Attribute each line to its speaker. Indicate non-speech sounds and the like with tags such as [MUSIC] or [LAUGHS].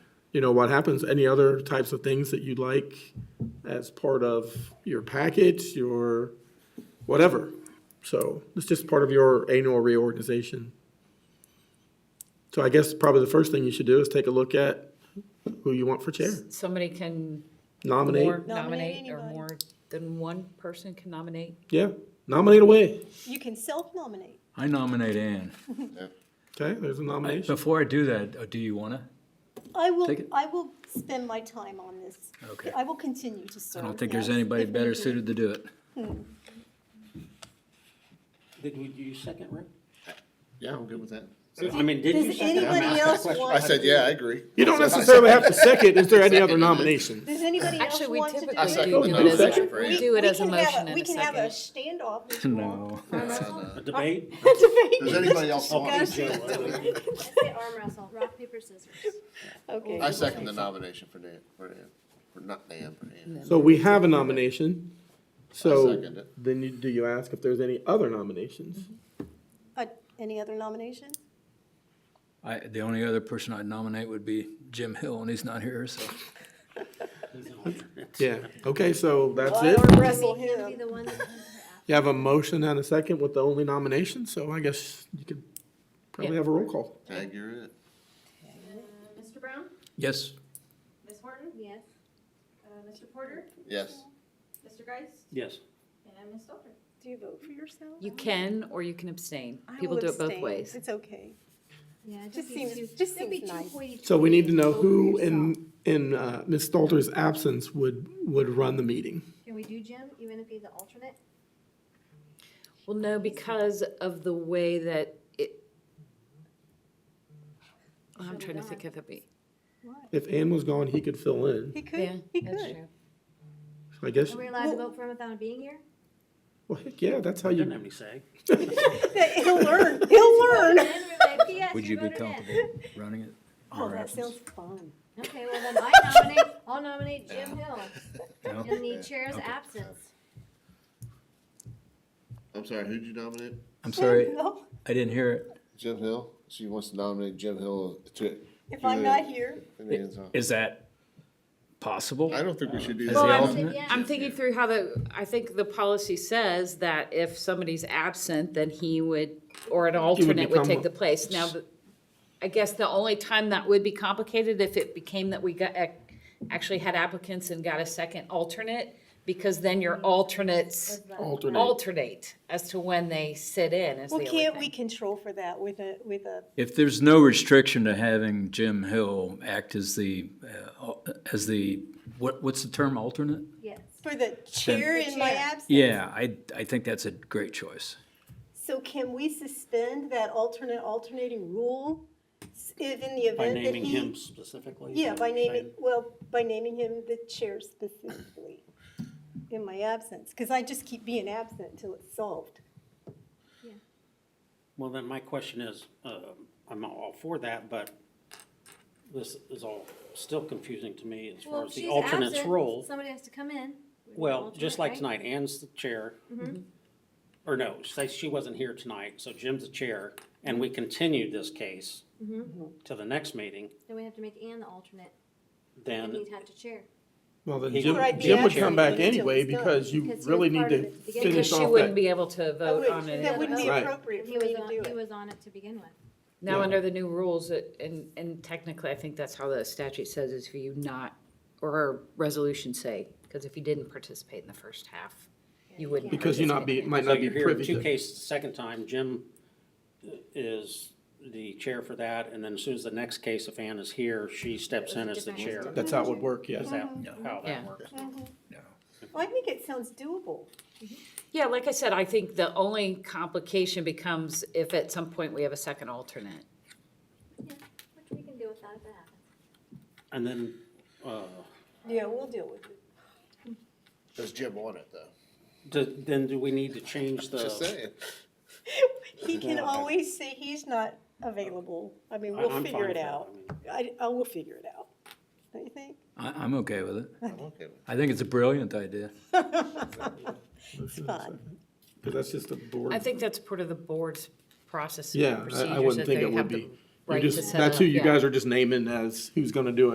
Speaker 1: you know, what happens, any other types of things that you'd like as part of your package, your whatever. So it's just part of your annual reorganization. So I guess probably the first thing you should do is take a look at who you want for chair,
Speaker 2: Somebody can more
Speaker 1: nominate,
Speaker 2: nominate or
Speaker 3: anybody.
Speaker 2: more than one person can nominate.
Speaker 1: yeah, nominate away.
Speaker 3: You can self-nominate.
Speaker 4: I nominate Ann.
Speaker 1: Okay, there's a nomination.
Speaker 4: Before I do that, uh, do you want to?
Speaker 3: I will,
Speaker 4: Take it.
Speaker 3: I will spend my time on this.
Speaker 4: Okay.
Speaker 3: I will continue to serve.
Speaker 4: I don't think there's
Speaker 3: yes,
Speaker 4: anybody
Speaker 3: if need
Speaker 4: better
Speaker 3: be.
Speaker 4: suited to do it. [LAUGHS]
Speaker 5: Did we, do you second, Rick?
Speaker 6: Yeah, I'm good with that.
Speaker 5: I mean, did you
Speaker 3: Does
Speaker 5: second? I'm
Speaker 3: anybody
Speaker 5: asking a
Speaker 3: else
Speaker 5: question.
Speaker 3: want?
Speaker 6: I said, yeah, I agree.
Speaker 1: You don't necessarily have to second, is there any other nomination?
Speaker 3: Does anybody else
Speaker 2: Actually, we
Speaker 3: want to do it?
Speaker 6: I
Speaker 2: typically
Speaker 6: second
Speaker 2: do
Speaker 6: the
Speaker 2: do it as
Speaker 1: motion.
Speaker 2: a,
Speaker 6: Second.
Speaker 2: we do it as a motion and
Speaker 3: We can have We
Speaker 2: a
Speaker 3: can have a
Speaker 2: second.
Speaker 3: standoff if you want.
Speaker 4: No.
Speaker 5: A debate?
Speaker 3: [LAUGHS]
Speaker 6: Does anybody else want?
Speaker 3: Discussion.
Speaker 7: Say arm wrestle, rock, paper, scissors.
Speaker 3: Okay.
Speaker 6: I second the nomination for Nan, for Nan, for not Nan, for Nan.
Speaker 1: So we have a nomination, so
Speaker 6: second it.
Speaker 1: then you, do you ask if there's any other nominations?
Speaker 3: Uh, Any other nomination?
Speaker 4: [LAUGHS] I, the only other person I'd nominate would be Jim Hill, and he's not here, so.
Speaker 1: Yeah, okay, so that's
Speaker 3: I
Speaker 1: it.
Speaker 3: arm wrestle
Speaker 7: Make him be
Speaker 3: him.
Speaker 7: the one that-
Speaker 1: You have a motion and a second with the only nomination, so I guess you could probably
Speaker 2: Yeah.
Speaker 1: have a roll call.
Speaker 6: Tag, you're it.
Speaker 7: Mr. Brown?
Speaker 4: Yes,
Speaker 7: Ms. [LAUGHS] Horton? Yes. Uh, Mr. Porter?
Speaker 6: Yes.
Speaker 7: Mr. Geis?
Speaker 5: [LAUGHS] Yes.
Speaker 7: And Ms. Stalter?
Speaker 3: Do you vote for yourself?
Speaker 2: You can or you can abstain.
Speaker 3: I
Speaker 2: People
Speaker 3: will
Speaker 2: do it both
Speaker 3: abstain.
Speaker 2: ways.
Speaker 3: It's okay.
Speaker 7: Yeah,
Speaker 3: Just seems- just seems nice.
Speaker 1: So we need to know who in, in uh, Ms. Stalter's absence would, would run the meeting.
Speaker 7: Can we do Jim, even if he's the alternate?
Speaker 2: Well, no, because of the way that it. I'm trying to think of it. be-
Speaker 1: If Ann was gone, he could fill in.
Speaker 3: He
Speaker 2: Yeah,
Speaker 3: could, he
Speaker 2: that's
Speaker 3: could.
Speaker 2: true.
Speaker 1: So I guess,
Speaker 7: Are we allowed to
Speaker 3: Well-
Speaker 7: vote for him without him being here?
Speaker 1: well, heck, yeah, that's how
Speaker 5: Didn't have
Speaker 1: you,
Speaker 5: any say.
Speaker 3: [LAUGHS] He'll learn, he'll learn.
Speaker 7: Then we're like, yes,
Speaker 4: would you be
Speaker 7: voted in.
Speaker 4: comfortable running it?
Speaker 3: Oh,
Speaker 4: Or
Speaker 3: that
Speaker 4: absence?
Speaker 3: sounds fun.
Speaker 7: Okay, well then I nominate, I'll nominate Jim Hill
Speaker 4: No?
Speaker 7: in the chair's absence.
Speaker 6: I'm sorry, who'd you nominate?
Speaker 4: I'm sorry,
Speaker 3: [LAUGHS] No,
Speaker 4: I didn't hear it.
Speaker 6: Jim Hill? She wants to nominate Jim Hill to.
Speaker 3: If I'm not here,
Speaker 6: to Nan's office.
Speaker 4: Is that possible?
Speaker 6: I don't think we should do
Speaker 4: As
Speaker 2: Well,
Speaker 4: the
Speaker 2: I'm-
Speaker 6: that.
Speaker 4: alternate?
Speaker 7: Yeah.
Speaker 2: I'm thinking through how the, I think the policy says that if somebody's absent, then he would, or an alternate would
Speaker 1: become
Speaker 2: take the
Speaker 1: a-
Speaker 2: place. Now, the- I guess the only time that would be complicated if it became that we got, ac- actually had applicants and got a second alternate, because then your alternates
Speaker 1: Alternate.
Speaker 2: alternate as to when they sit in is the
Speaker 3: well,
Speaker 2: only
Speaker 3: can't we
Speaker 2: thing.
Speaker 3: control for that with a, with a,
Speaker 4: If there's no restriction to having Jim Hill act as the, uh, al- as the, what, what's the term, alternate?
Speaker 7: Yes.
Speaker 3: for the chair in my
Speaker 7: Chair.
Speaker 3: absence?
Speaker 4: Yeah, I, I think that's a great choice.
Speaker 3: So can we suspend that alternate alternating rule s- if in the
Speaker 5: By
Speaker 3: event that
Speaker 5: naming him
Speaker 3: he?
Speaker 5: specifically?
Speaker 3: Yeah, by naming, well, by naming him the chair specifically in my absence, because I just keep being absent until it's solved.
Speaker 5: Well, then my question is, um, I'm all for that, but this is all still confusing to me as
Speaker 7: Well,
Speaker 5: far
Speaker 7: if
Speaker 5: as the
Speaker 7: she's
Speaker 5: alternate's
Speaker 7: absent,
Speaker 5: role.
Speaker 7: Somebody has to come in.
Speaker 5: Well, just like
Speaker 7: Alternate, right?
Speaker 5: tonight, Ann's the chair. Or no, say she wasn't here tonight, so Jim's the chair, and we continued this case to the next meeting,
Speaker 7: Then we have to make Ann the alternate,
Speaker 5: then
Speaker 7: and he'd have to chair.
Speaker 1: well, then
Speaker 5: He
Speaker 1: Jim,
Speaker 5: could- Right, the
Speaker 1: Jim would
Speaker 5: action
Speaker 1: come back
Speaker 3: until it's
Speaker 1: anyway
Speaker 3: done.
Speaker 1: because you
Speaker 7: Because he
Speaker 1: really
Speaker 7: was
Speaker 1: need
Speaker 7: part
Speaker 1: to
Speaker 7: of it to begin
Speaker 1: finish
Speaker 7: with.
Speaker 2: She
Speaker 1: off
Speaker 2: wouldn't
Speaker 1: that.
Speaker 2: be able to
Speaker 3: That
Speaker 2: vote on
Speaker 3: wouldn't,
Speaker 2: it.
Speaker 3: that wouldn't be
Speaker 1: Right.
Speaker 3: appropriate
Speaker 7: He
Speaker 3: for
Speaker 7: was
Speaker 3: me to
Speaker 7: on,
Speaker 3: do
Speaker 7: he
Speaker 3: it.
Speaker 7: was on it to begin with.
Speaker 2: Now,
Speaker 1: Yeah.
Speaker 2: under the new rules, it- and, and technically, I think that's how the statute says is for you not, or our resolutions say, because if you didn't participate in the first half, you wouldn't.
Speaker 1: Because you not be,
Speaker 2: participate.
Speaker 1: might
Speaker 5: So
Speaker 1: not be
Speaker 5: you're here
Speaker 1: privy
Speaker 5: in two
Speaker 1: to.
Speaker 5: cases, the second time, Jim is the chair for that, and then as soon as the next case, if Ann is here, she steps in as the chair.
Speaker 7: Different-
Speaker 1: That's how it would work,
Speaker 5: Is
Speaker 1: yes.
Speaker 5: that
Speaker 3: Mm-hmm.
Speaker 5: how
Speaker 2: Yeah.
Speaker 5: that works?
Speaker 3: Well, I think it sounds doable.
Speaker 2: Yeah, like I said, I think the only complication becomes if at some point we have a second alternate.
Speaker 7: Which we can do without if that happens.
Speaker 5: And then, uh,
Speaker 3: Yeah, we'll deal with it.
Speaker 6: Does Jim want it though?
Speaker 5: do- then do we need to change
Speaker 6: Just
Speaker 5: the,
Speaker 6: saying.
Speaker 3: He can
Speaker 5: Yeah.
Speaker 3: always say he's not available. I mean,
Speaker 5: I-
Speaker 3: we'll
Speaker 5: I'm
Speaker 3: figure
Speaker 5: fine
Speaker 3: it
Speaker 5: with that.
Speaker 3: out.
Speaker 5: I mean-
Speaker 3: I, I will figure it out. Don't you think?
Speaker 4: I, I'm okay with it.
Speaker 6: I'm okay with
Speaker 4: I think it's a brilliant idea.
Speaker 3: It's fun.
Speaker 1: Because that's just a board.
Speaker 2: I think that's part of the board's process. and
Speaker 1: Yeah, I- I
Speaker 2: procedures
Speaker 1: wouldn't
Speaker 2: that
Speaker 1: think
Speaker 2: they
Speaker 1: it would
Speaker 2: have the
Speaker 1: be. You
Speaker 2: Right to
Speaker 1: just,
Speaker 2: set
Speaker 1: that's who
Speaker 2: up,
Speaker 1: you
Speaker 2: yeah.
Speaker 1: guys are just naming as who's gonna do it.